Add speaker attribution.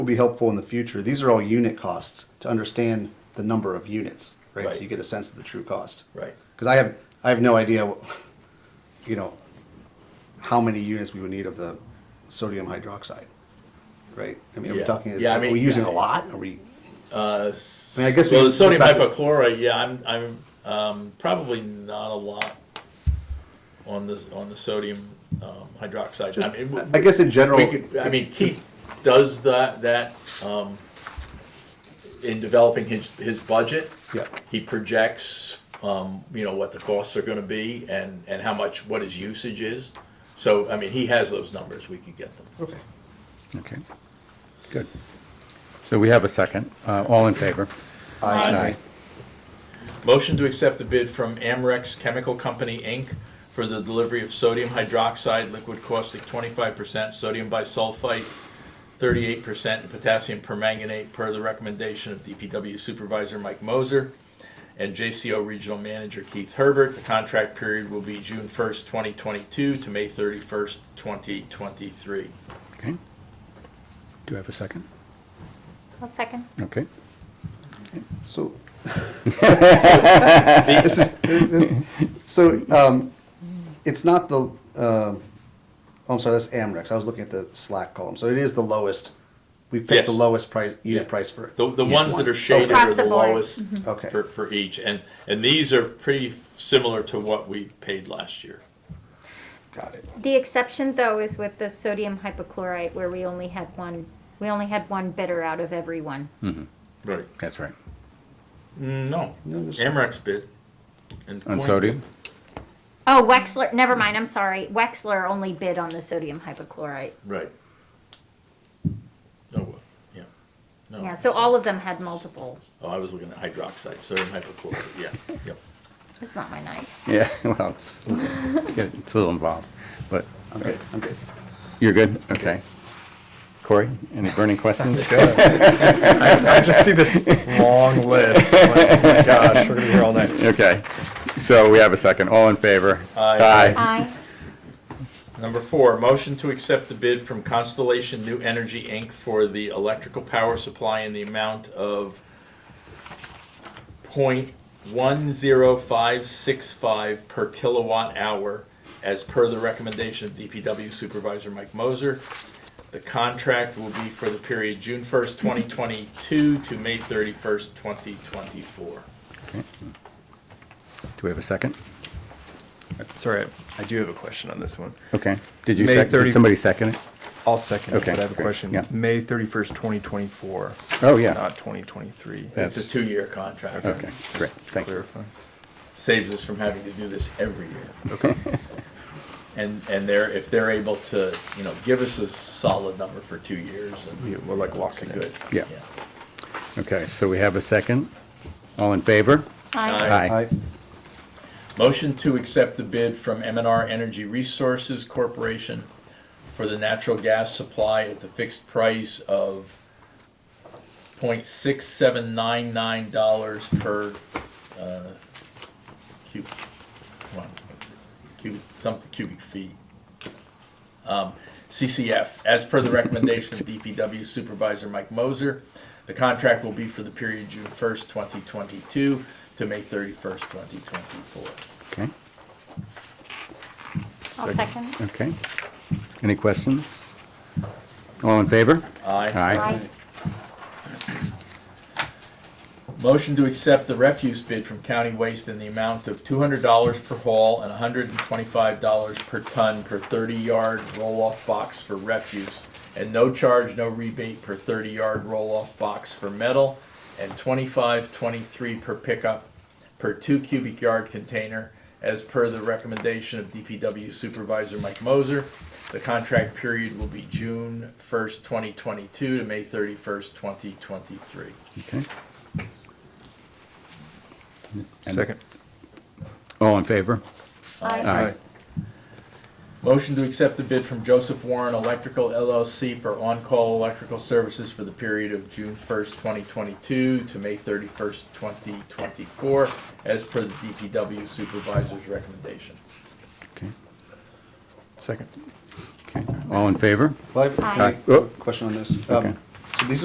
Speaker 1: will be helpful in the future. These are all unit costs to understand the number of units, right? So
Speaker 2: Right.
Speaker 1: you get a sense of the true cost.
Speaker 2: Right.
Speaker 1: Because I have, I have no idea, what- you know, how many units we would need of the sodium hydroxide, right? I mean, are we
Speaker 2: Yeah.
Speaker 1: talking, is-
Speaker 2: Yeah, I
Speaker 1: are we
Speaker 2: mean,
Speaker 1: using
Speaker 2: yeah.
Speaker 1: a lot? Are we,
Speaker 2: Uh,
Speaker 1: I mean, I guess we can
Speaker 2: well, the sodium
Speaker 1: look back to-
Speaker 2: hypochlorite. Yeah, I'm I'm um, probably not a lot on the on the sodium um, hydroxide.
Speaker 1: just, uh,
Speaker 2: I mean, w-
Speaker 1: I guess in general.
Speaker 2: we could, uh, I mean, Keith does that that um, in developing his his budget.
Speaker 1: Yeah.
Speaker 2: He projects, um, you know, what the costs are going to be and and how much what his usage is. So I mean, he has those numbers. We could get them.
Speaker 1: Okay.
Speaker 3: Okay, good. So we have a second. Uh, All in favor?
Speaker 1: Aye.
Speaker 2: Motion to accept the bid from Amrex Chemical Company, Inc. for the delivery of sodium hydroxide, liquid caustic twenty-five percent, sodium bisulfite thirty-eight percent, and potassium permanganate per the recommendation of DPW Supervisor Mike Moser and JCO Regional Manager Keith Herbert. The contract period will be June first, twenty twenty-two to May thirty-first, twenty twenty-three.
Speaker 3: Okay. Do I have a second?
Speaker 4: I'll second.
Speaker 3: Okay.
Speaker 1: So, this is, this- so, um, it's not the, um, oh, I'm sorry, that's Amrex. I was looking at the Slack column. So it is the lowest, we've picked the
Speaker 2: Yes.
Speaker 1: lowest price, unit
Speaker 2: Yeah.
Speaker 1: price for.
Speaker 2: The, the
Speaker 1: each
Speaker 2: ones
Speaker 1: one. Mm-hmm.
Speaker 2: that are shaded
Speaker 4: Across
Speaker 2: are the
Speaker 4: the board.
Speaker 2: lowest
Speaker 1: Okay.
Speaker 2: for, for each, and, and these are pretty similar to what we paid last year.
Speaker 1: Got it.
Speaker 4: The exception, though, is with the sodium hypochlorite, where we only had one, we only had one bidder out of every one.
Speaker 2: Right.
Speaker 3: That's right.
Speaker 2: Mm, No,
Speaker 1: No, this-
Speaker 2: Amrex bid. and
Speaker 3: On
Speaker 2: Coin
Speaker 3: sodium?
Speaker 4: Oh, Wexler, never mind, I'm sorry. Wexler only bid on the sodium hypochlorite.
Speaker 2: bid. Right. Oh, well, yeah. No,
Speaker 4: Yeah, so all of them had multiple.
Speaker 2: Oh, I was looking at hydroxide, sodium hypochlorite, yeah, yep.
Speaker 4: It's not my night.
Speaker 3: Yeah, well, it's, it's a little involved, but
Speaker 1: I'm good, I'm good.
Speaker 3: you're good? Okay. Corey, any burning questions?
Speaker 5: I just see this long list. I'm like, oh my gosh, we're gonna be here all night.
Speaker 3: Okay, so we have a second. All in favor?
Speaker 2: Aye.
Speaker 4: Aye.
Speaker 2: Number four, motion to accept the bid from Constellation New Energy, Inc. for the electrical power supply in the amount of point one zero five six five per kilowatt hour as per the recommendation of DPW Supervisor Mike Moser. The contract will be for the period June first, twenty twenty-two to May thirty-first, twenty twenty-four.
Speaker 3: Okay. Do we have a second?
Speaker 5: Sorry, I do have a question on this one.
Speaker 3: Okay. Did you
Speaker 5: May
Speaker 3: second,
Speaker 5: 30
Speaker 3: did somebody second it?
Speaker 5: I'll second it,
Speaker 3: Okay,
Speaker 5: but I have a
Speaker 3: great,
Speaker 5: question.
Speaker 3: yeah.
Speaker 5: May thirty-first, twenty twenty-four.
Speaker 3: Oh, yeah.
Speaker 5: Not twenty twenty-three.
Speaker 2: It's a two-year contract.
Speaker 3: Okay, great, thank you.
Speaker 5: Clarify.
Speaker 2: saves us from having to do this every year. Okay. And, and they're, if they're able to, you know, give us a solid number for two years
Speaker 5: Yeah,
Speaker 2: and.
Speaker 5: we're like locking
Speaker 2: it's a
Speaker 5: it.
Speaker 2: good-
Speaker 3: Yeah. Okay, so we have a second. All in favor?
Speaker 4: Aye.
Speaker 3: Aye.
Speaker 1: Aye.
Speaker 2: Motion to accept the bid from M and R Energy Resources Corporation for the natural gas supply at the fixed price of point six seven nine nine dollars per, uh, cube, one, what's it, cubic, something cubic feet. Um, CCF, as per the recommendation of DPW Supervisor Mike Moser, the contract will be for the period June first, twenty twenty-two to May thirty-first, twenty twenty-four.
Speaker 3: Okay,
Speaker 4: I'll second.
Speaker 3: okay. Any questions? All in favor?
Speaker 2: Aye.
Speaker 4: Aye.
Speaker 2: Motion to accept the refuse bid from County Waste in the amount of two hundred dollars per haul and hundred and twenty-five dollars per ton per thirty-yard roll-off box for refuse, and no charge, no rebate per thirty-yard roll-off box for metal, and twenty-five, twenty-three per pickup per two cubic yard container, as per the recommendation of DPW Supervisor Mike Moser. The contract period will be June first, twenty twenty-two to May thirty-first, twenty twenty-three.
Speaker 3: Okay.
Speaker 5: Second.
Speaker 3: All in favor?
Speaker 4: Aye.
Speaker 2: Motion to accept the bid from Joseph Warren Electrical LLC for on-call electrical services for the period of June 1st, 2022 to May 31st, 2024, as per the DPW supervisor's recommendation.
Speaker 3: Okay,
Speaker 5: Second.
Speaker 3: okay. All in favor?
Speaker 1: Well, I have
Speaker 4: Aye.
Speaker 1: a
Speaker 3: Oh.
Speaker 1: question on this.
Speaker 3: Okay.
Speaker 1: Um,